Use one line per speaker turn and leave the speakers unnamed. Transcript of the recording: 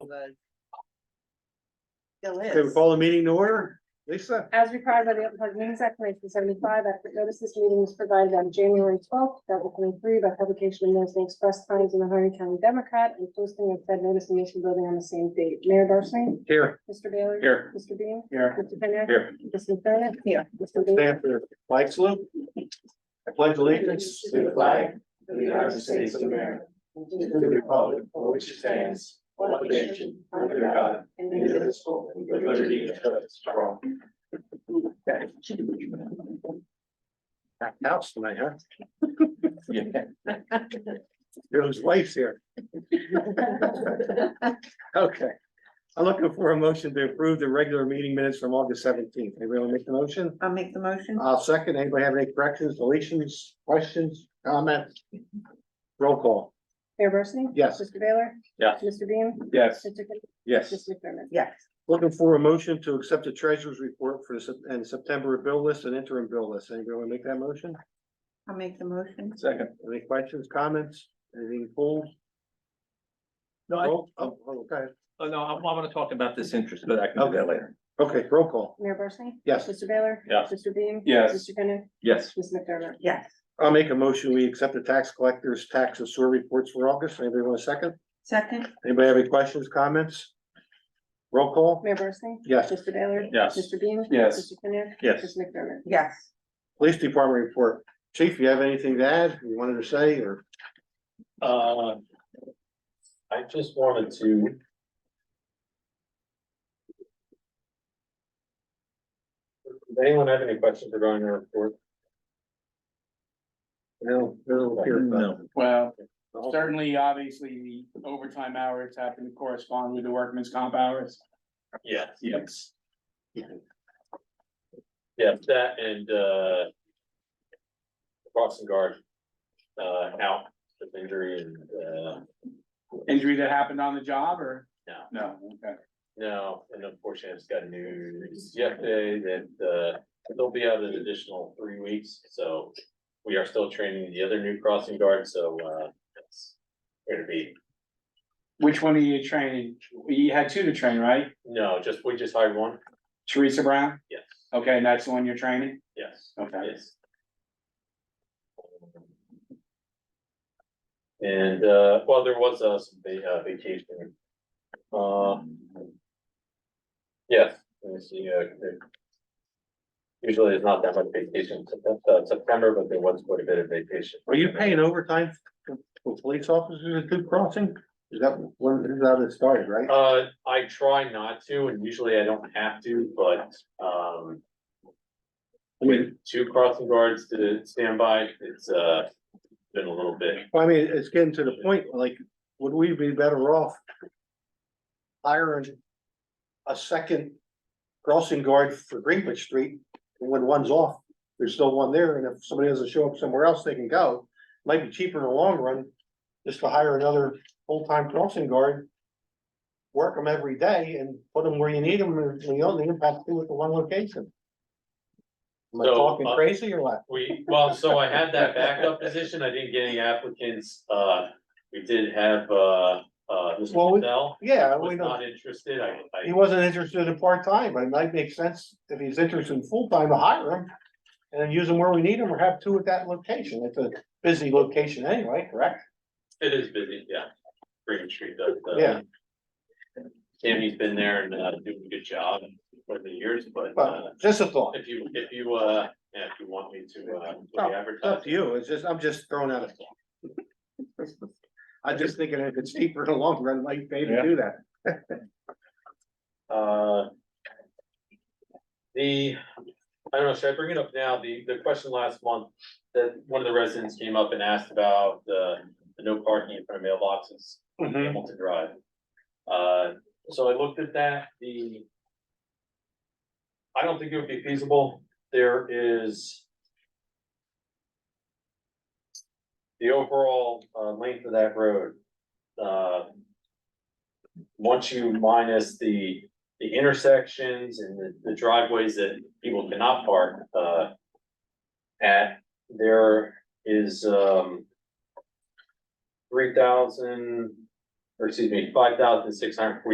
was. Still
Okay, we
is.
call the meeting to order. Lisa,
As required by the Open Public Meetings Act nineteen seventy-five, adequate notice this meeting was provided on January twelfth, two thousand twenty-three, by publication of notice in the Express Times and the Hardy County Democrat, and posting of said notice in the Nation Building on the same date. Mayor Barsney?
here,
Mr. Baylor?
Here.
Mr. Bean?
here,
Mr. Kenneth?
Here.
Mr. Bennett?
Here.
Mr. Bean?
stand for the flag salute. I pledge allegiance to the flag of the United States of America, to the republic for which it stands, one nation, under God, indivisible, with liberty and justice for all. Okay. Packed house tonight, huh? Joe's wife's here. Okay. I'm looking for a motion to approve the regular meeting minutes from August seventeenth. Anybody want to make the motion?
I'll make the motion.
I'll second. Anybody have any corrections, deletions, questions, comments? Roll call.
Mayor Barsney?
Yes.
Mr. Baylor?
Yes.
Mr. Bean?
Yes.
Mr. Kenneth?
Yes.
Mr. McDermott?
Yes,
Looking for a motion to accept the treasurer's report for the Sep- and September bill list and interim bill list. Anybody want to make that motion?
I'll make the motion.
Second. Any questions, comments, anything pulled?
No, I,
Roll- Oh, oh, go ahead.
oh, no, I, I wanna talk about this interest, but I can do that later.
Okay, roll call.
Mayor Barsney?
Yes.
Mr. Baylor?
Yes.
Mr. Bean?
Yes.
Mr. Kenneth?
Yes,
Ms. McDermott?
Yes,
I'll make a motion. We accept the tax collector's tax and sewer reports for August. Anybody want a second?
second,
Anybody have any questions, comments? Roll call.
Mayor Barsney?
Yes.
Mr. Baylor?
Yes.
Mr. Bean?
Yes.
Mr. Kenneth?
yes.
Ms. McDermott?
yes.
Police Department report. Chief, you have anything to add, you wanted to say, or?
Uh, I just wanted to. Does anyone have any questions regarding our report?
No, no, here, but-
No.
Well, certainly, obviously, the overtime hours have to correspond with the workman's comp hours.
Yes.
Yes.
Yeah, that and, uh. Crossing guard, uh, out with injury and, uh,
Injury that happened on the job or?
No.
No, okay.
no, and unfortunately, it's got news yesterday that, uh, they'll be out an additional three weeks, so. We are still training the other new crossing guard, so, uh, it's going to be
Which one are you training? You had two to train, right?
No, just, we just hired one,
Teresa Brown?
yes,
Okay, and that's the one you're training?
yes,
Okay.
yes. And, uh, well, there was, uh, some va- uh, vacation. Um. Yes, let me see, uh. there- Usually there's not that much vacation, in Sep- uh, September, but there was quite a bit of vacation.
Are you paying overtime for for police officers at Good Crossing? Is that when, is that it started, right?
Uh, I try not to, and usually I don't have to, but, um.
I mean,
Two crossing guards to stand by, it's, uh, been a little bit.
I mean, it's getting to the point, like, would we be better off hiring a second crossing guard for Greenwich Street? When one's off, there's still one there, and if somebody doesn't show up somewhere else, they can go. Might be cheaper in the long run, just to hire another full-time crossing guard. Work them every day and put them where you need them, and you only impact them with the one location. Am I
So,
talking
uh,
crazy or what?
We, well, so I had that backup position, I didn't get any applicants, uh, we did have, uh, uh, Mr.
Well, we-
Patel.
Yeah, we
Was
know.
not interested, I,
He
I,
wasn't interested in part-time, but it might make sense if he's interested in full-time to hire him. And then use him where we need him or have two at that location. It's a busy location anyway, correct?
it is busy, yeah. Green Street does, uh.
Yeah.
Tammy's been there and, uh, doing a good job for the years, but, uh,
But just a thought.
if you, if you, uh, yeah, if you want me to, uh,
No,
put the
It's up
advertise.
to you. It's just, I'm just throwing out a thought. I'm just thinking if it's cheaper in the long run, might pay to do that.
Uh. The, I don't know, should I bring it up now? The, the question last month, that one of the residents came up and asked about the, the no parking in front of mailboxes. on
Mm-hmm.
Hamilton Drive. Uh, so I looked at that, the. I don't think it would be feasible, there is. The overall, uh, length of that road, uh. Once you minus the, the intersections and the, the driveways that people cannot park, uh. At, there is, um. Three thousand, or excuse me, five thousand six hundred forty